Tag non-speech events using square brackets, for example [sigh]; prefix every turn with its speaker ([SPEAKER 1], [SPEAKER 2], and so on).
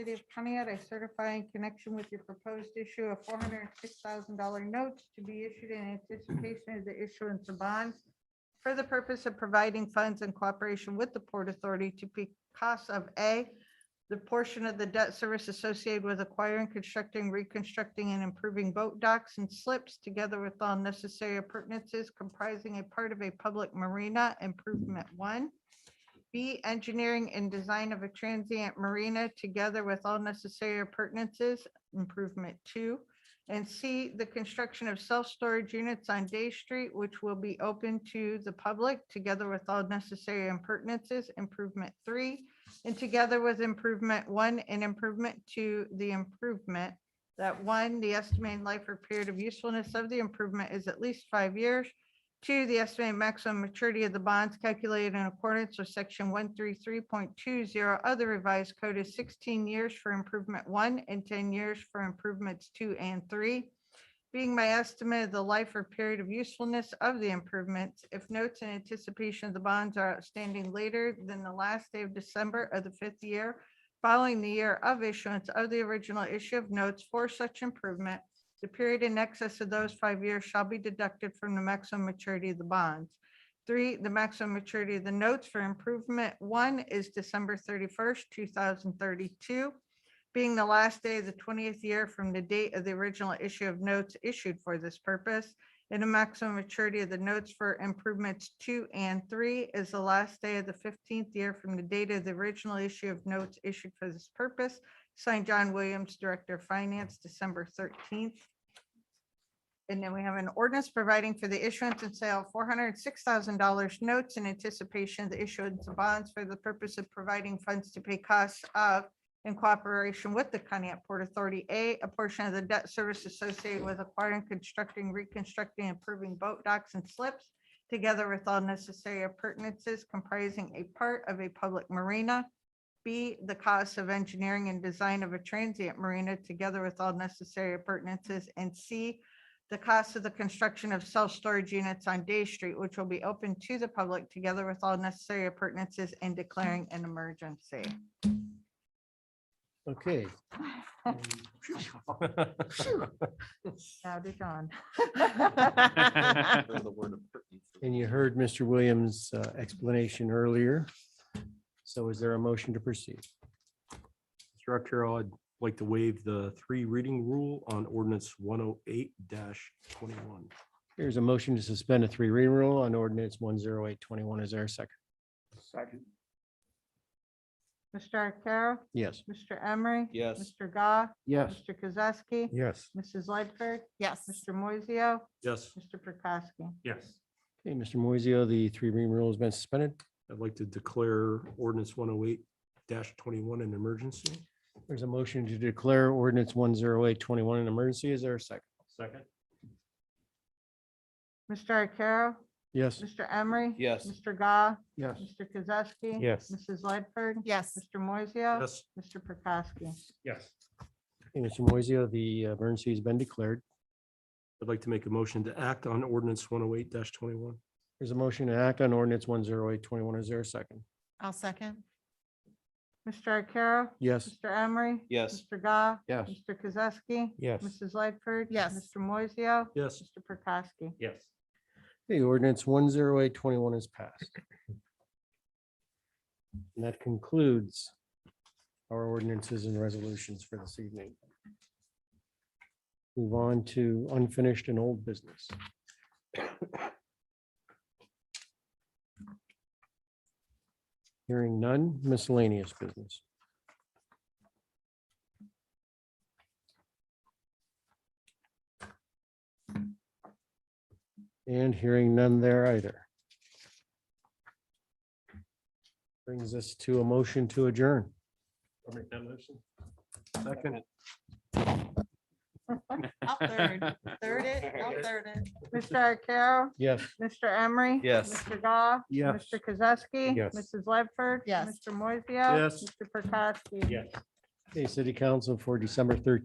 [SPEAKER 1] City of Pontiac, I certify in connection with your proposed issue of four hundred and six thousand dollar notes to be issued in anticipation of the issuance of bonds for the purpose of providing funds in cooperation with the Port Authority to pay costs of A, the portion of the debt service associated with acquiring, constructing, reconstructing, and improving boat docks and slips together with all necessary appurtenances comprising a part of a public marina improvement one. B, engineering and design of a transient marina together with all necessary appurtenances, improvement two. And C, the construction of self-storage units on Day Street, which will be open to the public together with all necessary appurtenances, improvement three. And together with improvement one and improvement two, the improvement. That one, the estimated life or period of usefulness of the improvement is at least five years. Two, the estimated maximum maturity of the bonds calculated in accordance with section one three three point two zero of the revised code is sixteen years for improvement one and ten years for improvements two and three. Being my estimate of the life or period of usefulness of the improvements, if notes in anticipation of the bonds are outstanding later than the last day of December of the fifth year following the year of issuance of the original issue of notes for such improvement, the period in excess of those five years shall be deducted from the maximum maturity of the bonds. Three, the maximum maturity of the notes for improvement one is December thirty-first, two thousand thirty-two, being the last day of the twentieth year from the date of the original issue of notes issued for this purpose. And the maximum maturity of the notes for improvements two and three is the last day of the fifteenth year from the date of the original issue of notes issued for this purpose. Signed, John Williams, Director of Finance, December thirteenth, and then we have an ordinance providing for the issuance and sale of four hundred and six thousand dollars notes in anticipation of the issuance of bonds for the purpose of providing funds to pay costs of in cooperation with the Conneaut Port Authority, A, a portion of the debt service associated with acquiring, constructing, reconstructing, improving boat docks and slips, together with all necessary appurtenances comprising a part of a public marina. B, the cost of engineering and design of a transient marina, together with all necessary appurtenances. And C, the cost of the construction of self-storage units on Day Street, which will be open to the public together with all necessary appurtenances and declaring an emergency.
[SPEAKER 2] Okay.
[SPEAKER 1] Now to John.
[SPEAKER 2] [laughs] And you heard Mr. Williams' uh, explanation earlier. So is there a motion to proceed?
[SPEAKER 3] Mr. Arcaro, I'd like to waive the three reading rule on ordinance one oh eight twenty-one.
[SPEAKER 2] Here's a motion to suspend a three reading rule on ordinance one zero eight twenty-one. Is there a second?
[SPEAKER 1] Mr. Arcaro,
[SPEAKER 2] Yes.
[SPEAKER 1] Mr. Emery.
[SPEAKER 4] Yes.
[SPEAKER 1] Mr. Gah.
[SPEAKER 2] Yes.
[SPEAKER 1] Mr. Kozeski.
[SPEAKER 3] Yes.
[SPEAKER 1] Mrs. Lightford. Yes. Mr. Moiseo,
[SPEAKER 3] Yes.
[SPEAKER 1] Mr. Prokowski.
[SPEAKER 3] Yes.
[SPEAKER 2] Okay, Mr. Moiseo, the three reading rule has been suspended.
[SPEAKER 3] I'd like to declare ordinance one oh eight twenty-one an emergency.
[SPEAKER 2] There's a motion to declare ordinance one zero eight twenty-one an emergency. Is there a second?
[SPEAKER 3] Second.
[SPEAKER 1] Mr. Arcaro,
[SPEAKER 2] Yes.
[SPEAKER 1] Mr. Emery.
[SPEAKER 4] Yes.
[SPEAKER 1] Mr. Gah.
[SPEAKER 2] Yes.
[SPEAKER 1] Mr. Kozeski.
[SPEAKER 3] Yes.
[SPEAKER 1] Mrs. Lightford.
[SPEAKER 5] Yes,
[SPEAKER 1] Mr. Moiseo,
[SPEAKER 3] Yes.
[SPEAKER 1] Mr. Prokowski.
[SPEAKER 3] Yes.
[SPEAKER 2] Mr. Moiseo, the uh, emergency has been declared.
[SPEAKER 3] I'd like to make a motion to act on ordinance one oh eight twenty-one.
[SPEAKER 2] There's a motion to act on ordinance one zero eight twenty-one. Is there a second?
[SPEAKER 5] I'll second.
[SPEAKER 1] Mr. Arcaro.
[SPEAKER 2] Yes.
[SPEAKER 1] Mr. Emery.
[SPEAKER 4] Yes.
[SPEAKER 1] Mr. Gah.
[SPEAKER 2] Yes.
[SPEAKER 1] Mr. Kozeski.
[SPEAKER 3] Yes.
[SPEAKER 1] Mrs. Lightford.
[SPEAKER 5] Yes.
[SPEAKER 1] Mr. Moiseo.
[SPEAKER 3] Yes.
[SPEAKER 1] Mr. Prokowski.
[SPEAKER 3] Yes.
[SPEAKER 2] The ordinance one zero eight twenty-one is passed. And that concludes our ordinances and resolutions for this evening. Move on to unfinished and old business. Hearing none miscellaneous business. And hearing none there either. Brings us to a motion to adjourn.
[SPEAKER 3] I'll make that motion. Second.
[SPEAKER 5] I'll third, third it, I'll third it.
[SPEAKER 1] Mr. Arcaro,
[SPEAKER 2] Yes.
[SPEAKER 1] Mr. Emery.
[SPEAKER 4] Yes.
[SPEAKER 1] Mr. Gah.
[SPEAKER 3] Yes.
[SPEAKER 1] Mr. Kozeski.
[SPEAKER 3] Yes.
[SPEAKER 1] Mrs. Ledford.
[SPEAKER 5] Yes.
[SPEAKER 1] Mr. Moiseo.
[SPEAKER 3] Yes.
[SPEAKER 1] Mr. Perkowski.
[SPEAKER 3] Yes.
[SPEAKER 2] Okay, City Council for December thirteenth.